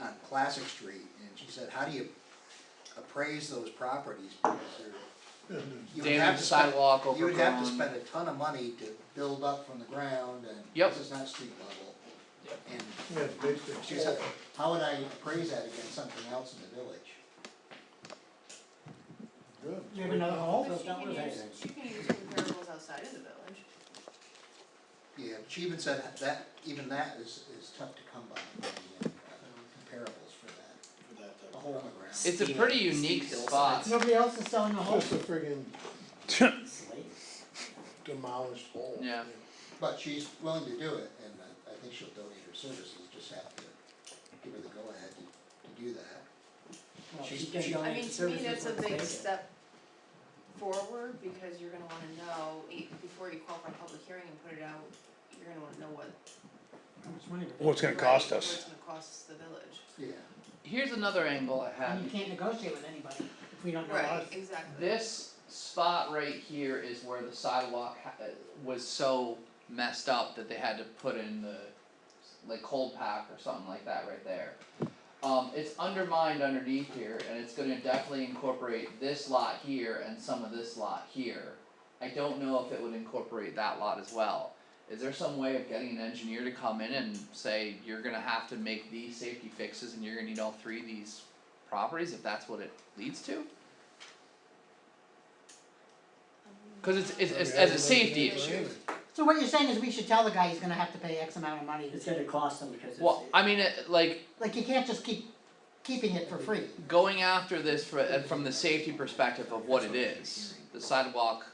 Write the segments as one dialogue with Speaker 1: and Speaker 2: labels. Speaker 1: on Classic Street, and she said, how do you appraise those properties? Because they're, you would have
Speaker 2: Damaged
Speaker 1: to spend,
Speaker 2: sidewalk overgrown.
Speaker 1: you would have to spend a ton of money to build up from the ground, and
Speaker 2: Yep.
Speaker 1: this is not street level.
Speaker 2: Yep.
Speaker 1: And
Speaker 3: Yeah, basically.
Speaker 1: she said, how would I appraise that against something else in the village?
Speaker 3: Good.
Speaker 4: You have another hole?
Speaker 5: But she can use, she can use comparables outside of the village.
Speaker 1: Yeah, but she even said that, even that is, is tough to come by, the, uh, comparables for that, a hole in the ground.
Speaker 2: It's a pretty unique spot.
Speaker 4: Nobody else is selling the whole.
Speaker 3: Just a friggin' demolished hole.
Speaker 2: Yeah.
Speaker 1: But she's willing to do it, and uh, I, I think she'll donate her services, just have to give her the go-ahead to, to do that. She's- she-
Speaker 5: I mean, to me, that's a big step forward, because you're gonna wanna know, e- before you call for a public hearing and put it out, you're gonna wanna know what.
Speaker 4: How much money?
Speaker 6: Well, it's gonna cost
Speaker 5: What
Speaker 6: us.
Speaker 5: it's gonna cost the village.
Speaker 1: Yeah,
Speaker 2: Here's another angle I had.
Speaker 4: And you can't negotiate with anybody if we don't know
Speaker 5: Right,
Speaker 4: us.
Speaker 5: exactly.
Speaker 2: This spot right here is where the sidewalk ha- uh, was so messed up that they had to put in the like cold pack or something like that right there. Um, it's undermined underneath here, and it's going to definitely incorporate this lot here and some of this lot here. I don't know if it would incorporate that lot as well. Is there some way of getting an engineer to come in and say you're going to have to make these safety fixes and you're going to need all three of these properties if that's what it leads to? Cause it's it's it's as a safety issue,
Speaker 4: So what you're saying is we should tell the guy he's gonna have to pay X amount of money.
Speaker 7: It's gonna cost them because it's.
Speaker 2: well, I mean, it- like,
Speaker 4: Like you can't just keep keeping it for free.
Speaker 2: going after this for, uh, from the safety perspective of what it is. The sidewalk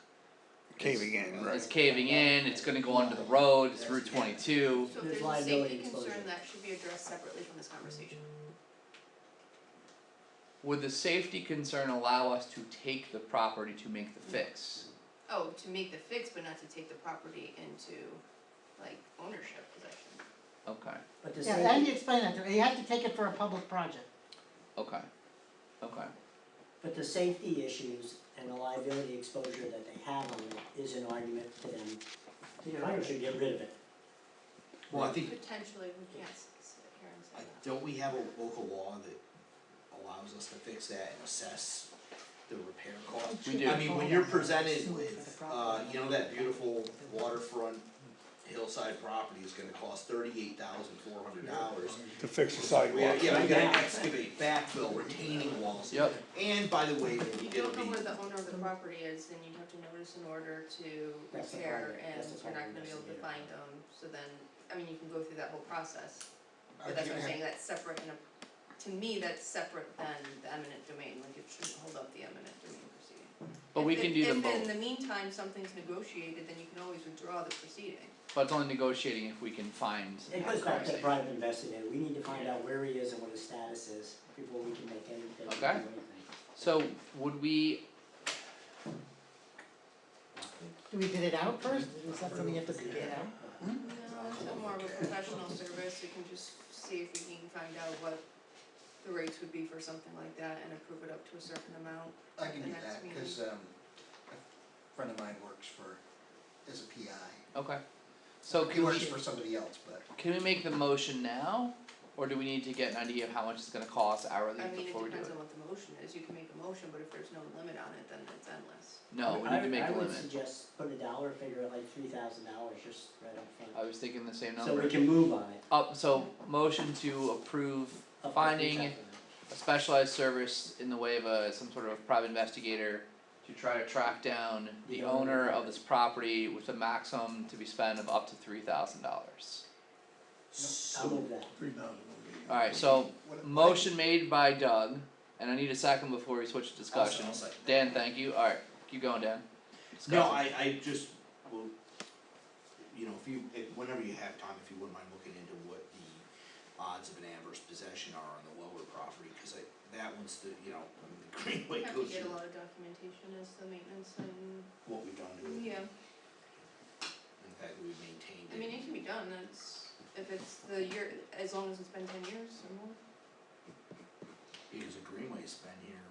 Speaker 6: Caving in, right.
Speaker 2: is caving in, it's gonna go under the road, it's Route twenty-two,
Speaker 5: So if
Speaker 7: There's
Speaker 5: there's a
Speaker 7: liability
Speaker 5: safety concern,
Speaker 7: exposure.
Speaker 5: that should be addressed separately from this conversation.
Speaker 2: would the safety concern allow us to take the property to make the fix?
Speaker 5: Oh, to make the fix, but not to take the property into, like, ownership possession.
Speaker 2: Okay,
Speaker 7: But the
Speaker 4: Yeah, how do
Speaker 7: safety,
Speaker 4: you explain that to her? You have to take it for a public project.
Speaker 2: okay, okay,
Speaker 7: but the safety issues and the liability exposure that they have on it is an argument to them. The owner should get rid of it.
Speaker 8: Well, I think,
Speaker 5: Potentially, we can't s- sit here and say
Speaker 8: I-
Speaker 5: that.
Speaker 8: don't we have a local law that allows us to fix that and assess the repair cost?
Speaker 2: We do.
Speaker 8: I mean, when you're presented with, uh, you know, that beautiful waterfront hillside property is gonna cost thirty-eight thousand four hundred dollars.
Speaker 6: to fix the
Speaker 8: We,
Speaker 6: sidewalk.
Speaker 8: yeah, we gotta excavate, backfill, retaining walls.
Speaker 2: yep,
Speaker 8: And by the way,
Speaker 5: If you
Speaker 8: it'll
Speaker 5: don't know
Speaker 8: be,
Speaker 5: where the owner of the property is, then you'd have to notice an order to
Speaker 7: That's the
Speaker 5: repair
Speaker 7: problem.
Speaker 5: and
Speaker 7: That's the
Speaker 5: you're not
Speaker 7: problem.
Speaker 5: gonna be able to
Speaker 7: That's the
Speaker 5: find them, so then, I mean, you can go through that whole process.
Speaker 1: I
Speaker 5: But that's what I'm
Speaker 1: can't-
Speaker 5: saying, that's separate and, a- to me, that's separate than the eminent domain, like it shouldn't hold up the eminent domain proceeding.
Speaker 2: but we
Speaker 5: If-
Speaker 2: can do
Speaker 5: if-
Speaker 2: them
Speaker 5: If in
Speaker 2: both,
Speaker 5: the meantime, something's negotiated, then you can always withdraw the proceeding.
Speaker 2: but it's only negotiating if we can find
Speaker 7: It
Speaker 2: that
Speaker 7: goes back to
Speaker 2: conversation.
Speaker 7: the private investigator, we need to find out where he is and what his status is before we can make any, that we
Speaker 2: Okay.
Speaker 7: can do anything.
Speaker 2: So would we,
Speaker 4: Do we bid it out first? Is that something you have to bid it out?
Speaker 5: No, it's more of a professional service, you can just see if we can find out what the rates would be for something like that and approve it up to a certain amount.
Speaker 1: I can
Speaker 5: The
Speaker 1: do
Speaker 5: next
Speaker 1: that,
Speaker 5: meeting.
Speaker 1: cause um, a friend of mine works for, is a PI.
Speaker 2: okay, so
Speaker 1: He
Speaker 2: can we?
Speaker 1: works for somebody else, but
Speaker 2: Can we make the motion now, or do we need to get an idea of how much it's gonna cost hourly
Speaker 5: I mean, it
Speaker 2: before we do it?
Speaker 5: depends on what the motion is, you can make a motion, but if there's no limit on it, then it's endless.
Speaker 2: No, we need to make
Speaker 7: I
Speaker 2: a
Speaker 7: would, I would
Speaker 2: limit,
Speaker 7: suggest put a dollar figure at like three thousand dollars just right up
Speaker 2: I
Speaker 7: front.
Speaker 2: was thinking the same
Speaker 7: So we
Speaker 2: number,
Speaker 7: can move on it.
Speaker 2: up, so motion to approve
Speaker 7: up to
Speaker 2: Finding-
Speaker 7: 3,000.
Speaker 2: a specialized service in the way of a, some sort of private investigator to try to track down the
Speaker 7: The owner.
Speaker 2: owner of this property with a maximum to be spent of up to three thousand dollars.
Speaker 7: I'll
Speaker 8: so,
Speaker 7: move that.
Speaker 3: Three thousand.
Speaker 2: Alright, so
Speaker 1: what, what,
Speaker 2: motion made by Doug, and I need a second before we switch to
Speaker 8: I'll
Speaker 2: discussion.
Speaker 8: second that.
Speaker 2: Dan, thank you, alright, keep going, Dan.
Speaker 8: No,
Speaker 2: Discussion.
Speaker 8: I, I just, well, you know, if you, if, whenever you have time, if you wouldn't mind looking into what the odds of an adverse possession are on the lower property, cause I, that one's the, you know, I mean, the
Speaker 5: You
Speaker 8: Greenway
Speaker 5: have to
Speaker 8: goes
Speaker 5: get a
Speaker 8: through
Speaker 5: lot of documentation as the maintenance and,
Speaker 8: what we've done to it.
Speaker 5: yeah,
Speaker 8: In fact, that we've maintained it.
Speaker 5: I mean, it can be done, that's, if it's the year, as long as it's been ten years or more.
Speaker 8: Because the Greenway's been here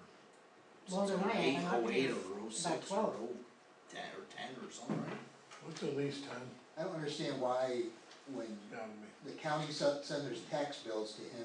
Speaker 4: Longer
Speaker 8: since
Speaker 4: than I have,
Speaker 8: eight,
Speaker 4: and I've
Speaker 8: oh
Speaker 4: been
Speaker 8: eight
Speaker 4: here
Speaker 8: or oh
Speaker 4: about
Speaker 8: six or
Speaker 4: 12.
Speaker 8: oh ten or ten or something, right?
Speaker 3: What's the lease time
Speaker 1: I don't understand why when
Speaker 3: down to me?
Speaker 1: the county se- sends their tax bills to him,